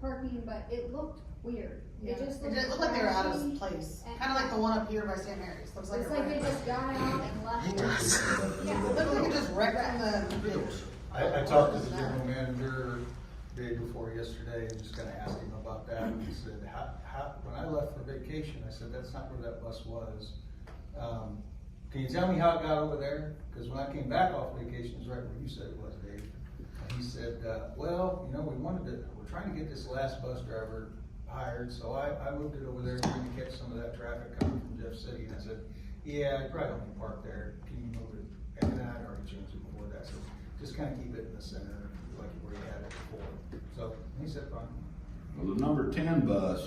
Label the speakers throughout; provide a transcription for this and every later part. Speaker 1: parking, but it looked weird. It just
Speaker 2: It
Speaker 1: looked.
Speaker 2: did look like they were out
Speaker 1: trashy
Speaker 2: of place,
Speaker 1: and-
Speaker 2: kinda like the one up here by St. Mary's, looks like.
Speaker 1: It's
Speaker 2: it
Speaker 1: like they
Speaker 2: wrecked.
Speaker 1: just got out and left.
Speaker 3: It does.
Speaker 1: Yeah.
Speaker 2: It Looks like it just wrecked the bridge.
Speaker 4: I, I talked to the general manager day before yesterday, and just kinda asked him about that, and he said, how, how, when I left for vacation, I said, that's not where that bus was. Um, can you tell me how it got over there? Cause when I came back off vacation, it's right where you said it was, Dave. And He said, uh, well, you know, we wanted to, we're trying to get this last bus driver hired, so I, I moved it over there, trying to catch some of that traffic coming from Jeff City, and I said, yeah, I probably don't park there, can you move it? And then I'd already changed it before that, so just kinda keep it in the center, like where you had it before, so, and he said, fine,
Speaker 5: Well, the number ten bus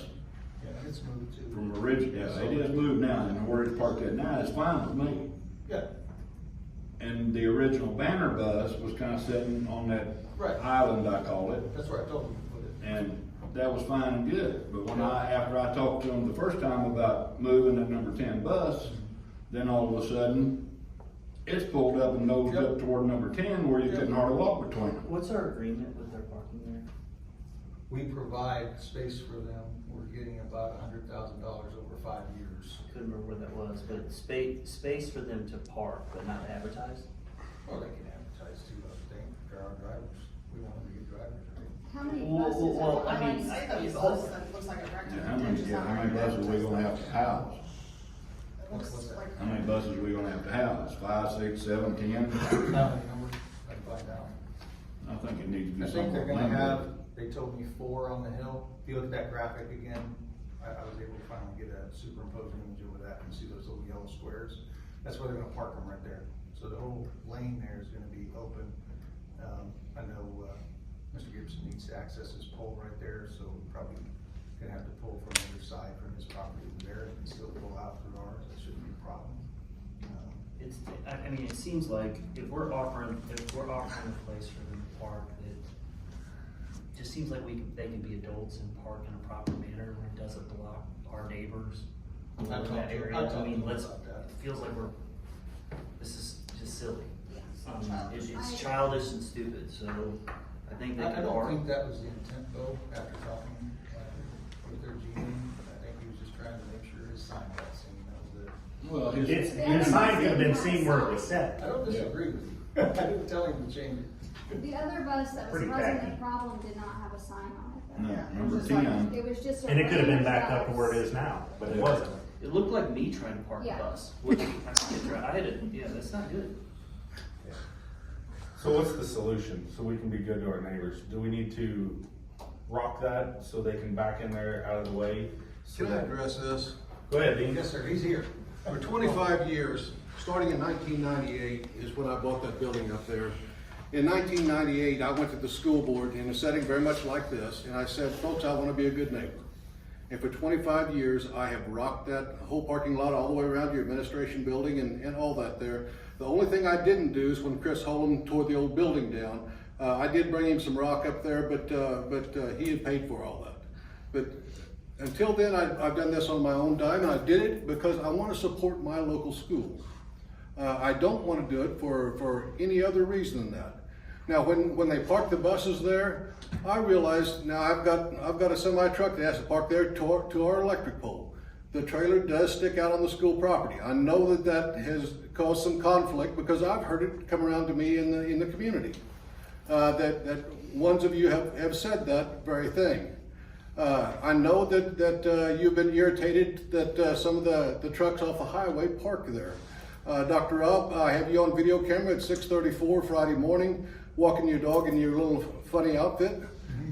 Speaker 4: yeah, it's moved to.
Speaker 5: from origin, yeah, they just moved now, and where it's parked at now is fine with me.
Speaker 4: Yeah,
Speaker 5: And the original banner bus was kinda sitting on that
Speaker 4: Right.
Speaker 5: island, I call it,
Speaker 4: that's where I told him to put it.
Speaker 5: and that was fine and good. But when I, after I talked to them the first time about moving that number ten bus, then all of a sudden, it's pulled up and nosed
Speaker 4: Yep.
Speaker 5: up toward number ten where you
Speaker 4: Yep.
Speaker 5: couldn't hardly walk between them.
Speaker 6: What's our agreement with their parking there?
Speaker 4: We provide space for them, we're getting about a hundred thousand dollars over five years.
Speaker 6: Couldn't remember where that was, but space, space for them to park but not advertise?
Speaker 4: Well, they can advertise too, I would think, there are drivers, we want them to get drivers, right?
Speaker 1: How many
Speaker 6: Well,
Speaker 1: buses
Speaker 6: well,
Speaker 1: are
Speaker 6: well, I
Speaker 1: going?
Speaker 6: mean,
Speaker 2: Say
Speaker 6: It's
Speaker 2: the
Speaker 6: all-
Speaker 2: bus that looks like it wrecked.
Speaker 5: Yeah,
Speaker 2: the
Speaker 5: how many,
Speaker 2: bridge is
Speaker 5: yeah,
Speaker 2: not
Speaker 5: how many
Speaker 2: right.
Speaker 5: buses we gonna have to house?
Speaker 2: It looks like.
Speaker 5: How many buses we gonna have to house? Five, six, seven, ten?
Speaker 4: Now, you know, I can find out.
Speaker 5: I think it needs to
Speaker 4: I
Speaker 5: be
Speaker 4: think they're
Speaker 5: somewhat
Speaker 4: gonna have,
Speaker 5: limited.
Speaker 4: they told me four on the hill, if you look at that graphic again, I, I was able to finally get a superimposing image over that and see those little yellow squares. That's where they're gonna park them right there, so the whole lane there is gonna be open. Um, I know, uh, Mr. Gibson needs to access his pole right there, so we're probably gonna have to pull from the other side from his property over there and still pull out through ours, that shouldn't be a problem. Um,
Speaker 7: It's, I, I mean, it seems like if we're offering, if we're offering a place for them to park, it just seems like we can, they can be adults and park in a proper manner, and it doesn't block our neighbors. or
Speaker 4: I talked
Speaker 7: that
Speaker 4: to- I
Speaker 7: area.
Speaker 4: talked to
Speaker 7: mean,
Speaker 4: them
Speaker 7: let's,
Speaker 4: about that.
Speaker 7: it feels like we're, this is just silly. Um,
Speaker 2: Childish.
Speaker 7: it-
Speaker 1: I-
Speaker 7: It's childish and stupid, so I think they
Speaker 4: I I
Speaker 7: can
Speaker 4: don't
Speaker 7: park.
Speaker 4: think that was the intent though, after talking uh, with their GM, I think he was just trying to make sure his sign got seen, that was it.
Speaker 5: Well, his.
Speaker 8: It's, the sign could have been seen where it was set.
Speaker 4: I don't disagree with you, I didn't tell him to change it.
Speaker 1: The other bus that was
Speaker 8: Pretty
Speaker 1: causing the
Speaker 8: tacky.
Speaker 1: problem did not have a sign on it.
Speaker 5: No,
Speaker 2: Yeah, it
Speaker 5: number
Speaker 2: was just like-
Speaker 5: ten.
Speaker 1: though. It was just a.
Speaker 8: And it could have been backed
Speaker 1: regular
Speaker 8: up to where it
Speaker 1: bus.
Speaker 8: is now, but it wasn't.
Speaker 7: It looked like me trying to park a
Speaker 1: Yeah.
Speaker 7: bus, which I can't drive, I had a, yeah, that's not good.
Speaker 9: So what's the solution, so we can be good to our neighbors? Do we need to rock that so they can back in there out of the way? So
Speaker 10: Can I
Speaker 9: that,
Speaker 10: address this?
Speaker 9: go ahead, Dean.
Speaker 4: Yes, sir, he's here.
Speaker 10: For twenty-five years, starting in nineteen ninety-eight is when I bought that building up there. In nineteen ninety-eight, I went to the school board in a setting very much like this, and I said, folks, I wanna be a good neighbor. And for twenty-five years, I have rocked that whole parking lot all the way around your administration building and, and all that there. The only thing I didn't do is when Chris Holm tore the old building down, uh, I did bring him some rock up there, but, uh, but, uh, he had paid for all that. But until then, I, I've done this on my own dime, and I did it because I want to support my local schools. Uh, I don't want to do it for, for any other reason than that. Now, when, when they park the buses there, I realize now I've got, I've got a semi truck that has to park there to our, to our electric pole. The trailer does stick out on the school property. I know that that has caused some conflict because I've heard it come around to me in the, in the community. Uh, that, that ones of you have, have said that very thing. Uh, I know that, that uh, you've been irritated that uh, some of the, the trucks off the highway park there. Uh, Dr. Rob, I have you on video camera at 6:34 Friday morning, walking your dog in your little funny outfit,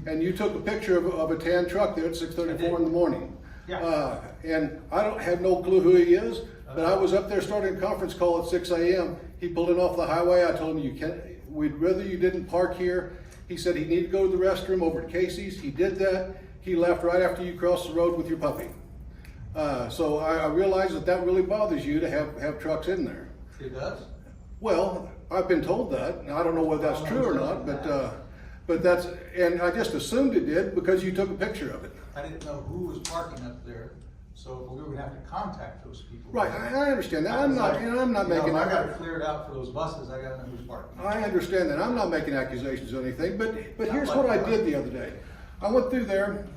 Speaker 10: and you took a picture of, of a tan truck there at 6:34 in the morning.
Speaker 4: Yeah.
Speaker 10: Uh, and I don't have no clue who he is, but I was up there starting a conference call at 6 a.m. He pulled in off the highway. I told him you can't. We'd rather you didn't park here. He said he needed to go to the restroom over at Casey's. He did that. He left right after you crossed the road with your puppy. Uh, so I, I realize that that really bothers you to have, have trucks in there.
Speaker 4: It does?
Speaker 10: Well, I've been told that, and I don't know whether that's true or not, but, uh, but that's, and I just assumed it did because you took a picture of it.
Speaker 4: I didn't know who was parking up there, so we would have to contact those people.
Speaker 10: Right, I, I understand that.
Speaker 4: I
Speaker 10: I'm
Speaker 4: was
Speaker 10: not,
Speaker 4: like,
Speaker 10: and I'm not
Speaker 4: you know,
Speaker 10: making.
Speaker 4: if I gotta clear it out for those buses, I gotta know who's parking.
Speaker 10: I understand that. I'm not making accusations or anything, but, but here's what I did the other day. I went through there